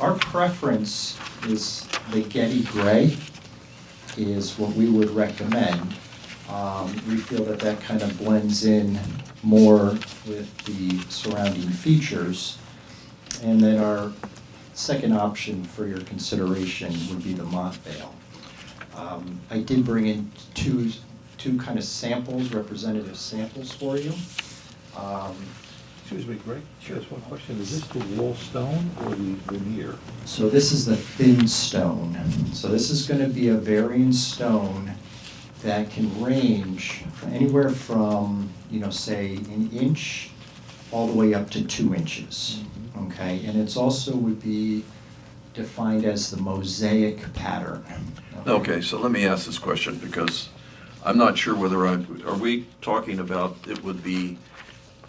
Our preference is the Getty Gray is what we would recommend. Um, We feel that that kind of blends in more with the surrounding features. And then our second option for your consideration would be the Montvale. Um, I did bring in two, two kind of samples, representative samples for you. Um, Excuse me, Greg, just one question, is this the wall stone or the veneer? So this is the thin stone. So this is gonna be a varying stone that can range anywhere from, you know, say an inch all the way up to two inches, Mm-hmm. okay? And it's also would be defined as the mosaic pattern. Okay, so let me ask this question, because I'm not sure whether I, are we talking about it would be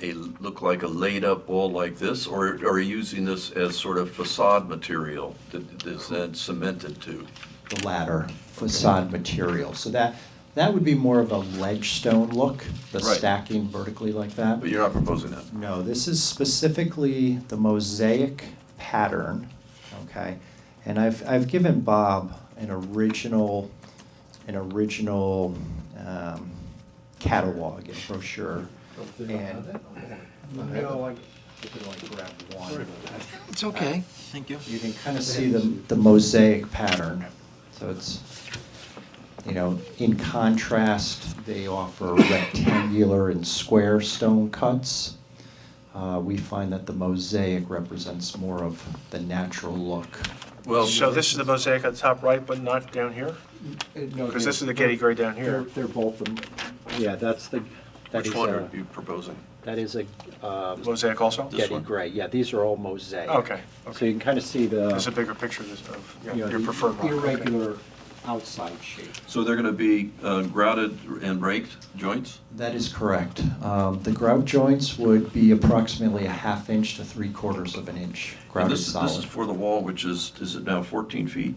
a, look like a laid-up wall like this, or are you using this as sort of facade material that is then cemented to? The latter facade material. So that, that would be more of a ledge stone look, the Right. stacking vertically like that. But you're not proposing that? No, this is specifically the mosaic pattern, okay? And I've, I've given Bob an original, an original um, catalog and brochure. And No, I. It's okay. Thank you. you can kind of see the, the mosaic pattern. So it's, you know, in contrast, they offer rectangular and square stone cuts. Uh, We find that the mosaic represents more of the natural look. Uh, Well, So this is the mosaic on top right, but not down here? Because this is the Getty Gray down They're, here. they're both, the- yeah, that's the, that which is one uh, are a, you proposing? that is a um, Mosaic also? This Getty one? Gray. Yeah, these are all mosaic. Okay, So okay. you can kind of see There's a the, bigger picture of this- of yeah, you know, your the preferred rock. okay. irregular outside shape. So they're gonna be uh, grouted and raked joints? That is correct. Um, The grout joints would be approximately a half inch to three quarters of an inch And grouted this, this is solid. for the wall, which is, is it now fourteen feet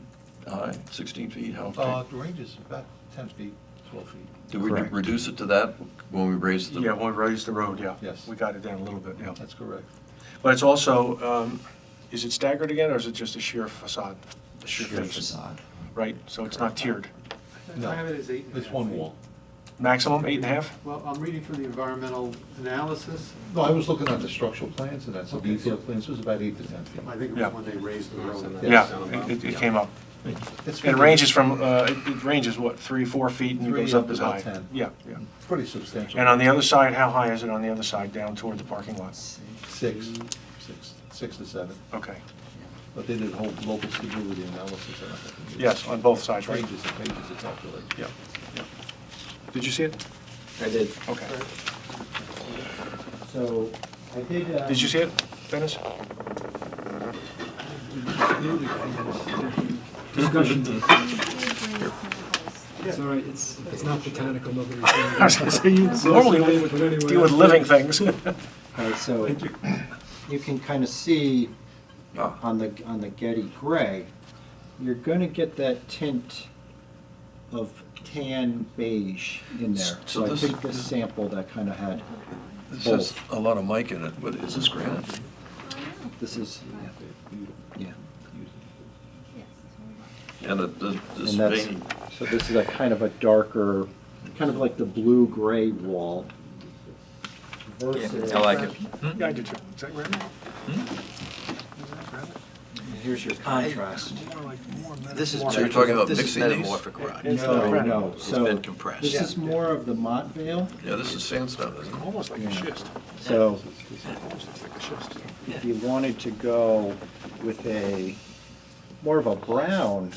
high, sixteen feet, how? Uh, the range is about ten feet, twelve feet. Did we Correct. reduce it to that when we raised the? Yeah, when we raised the road, yeah. Yes. We got it down a little bit, yeah. That's correct. But it's also, um, is it staggered again, or is it just a sheer facade? A sheer Sheer face, facade. Right, so it's not tiered. No. I have it as eight and a half. It's one wall. Maximum, eight and a half? Well, I'm reading from the environmental analysis. No, I was looking at the structural plans, and that's a Okay. detailed plan, so it's about eight to ten feet. I think it Yeah. was when they raised the road. Yeah, it, it- it came up. It's It pretty- ranges from, uh, it it ranges, what, three, four feet, and it Three goes up up to as high? about 10. Yeah, yeah. Pretty substantial. And on the other side, how high is it on the other side, down toward the parking lot? Six, six, six to seven, Okay, but they did a whole global stability analysis. and everything. yes, on both sides, right? Pages and pages of calculation. Yeah, yeah. Did you see it? I did. Okay. So I did. uh, Did you see it, Dennis? It's all right, it's, it's not botanical, nobody. I was gonna say, you normally only deal with Hmm? living things. All right, so you can kind of see Ah. on the, on the Getty Gray, you're gonna get that tint of tan beige in there. So So I this- think this sample that kind of had, This has a lot of mic in it, but is this granite? this is, yeah. And it- the- this And that's- vein, So this is a kind of a darker, Kind of like the blue-gray wall. versus. like it. Yeah, I do too. Is that right? Here's your contrast. This is. So you're talking about mixing these? This is metamorphic rock. It's No, not no, It's so been compressed. this is more of the Montvale, yeah, this is sandstone, isn't it? Almost like a schist. so Almost looks like a schist. if you wanted to go with a, more of a brown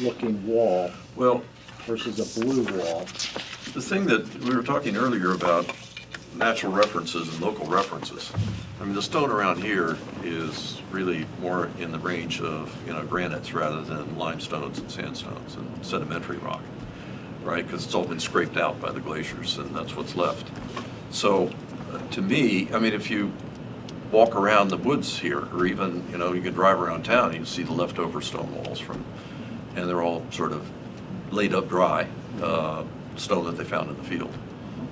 looking wall Well, versus a blue wall. the thing that, we were talking earlier about natural references and local references. I mean, the stone around here is really more in the range of, you know, granites rather than limestones and sandstones and sedimentary rock, right? Because it's all been scraped out by the glaciers and that's what's left. So, uh, to me, I mean, if you walk around the woods here, or even, you know, you can drive around town, you can see the leftover stone walls from, and they're all sort of laid up dry, uh, stone that they found in the field.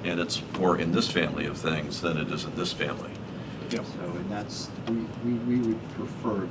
And it's more in this family of things than it is in this family. So, and that's, we, we we would prefer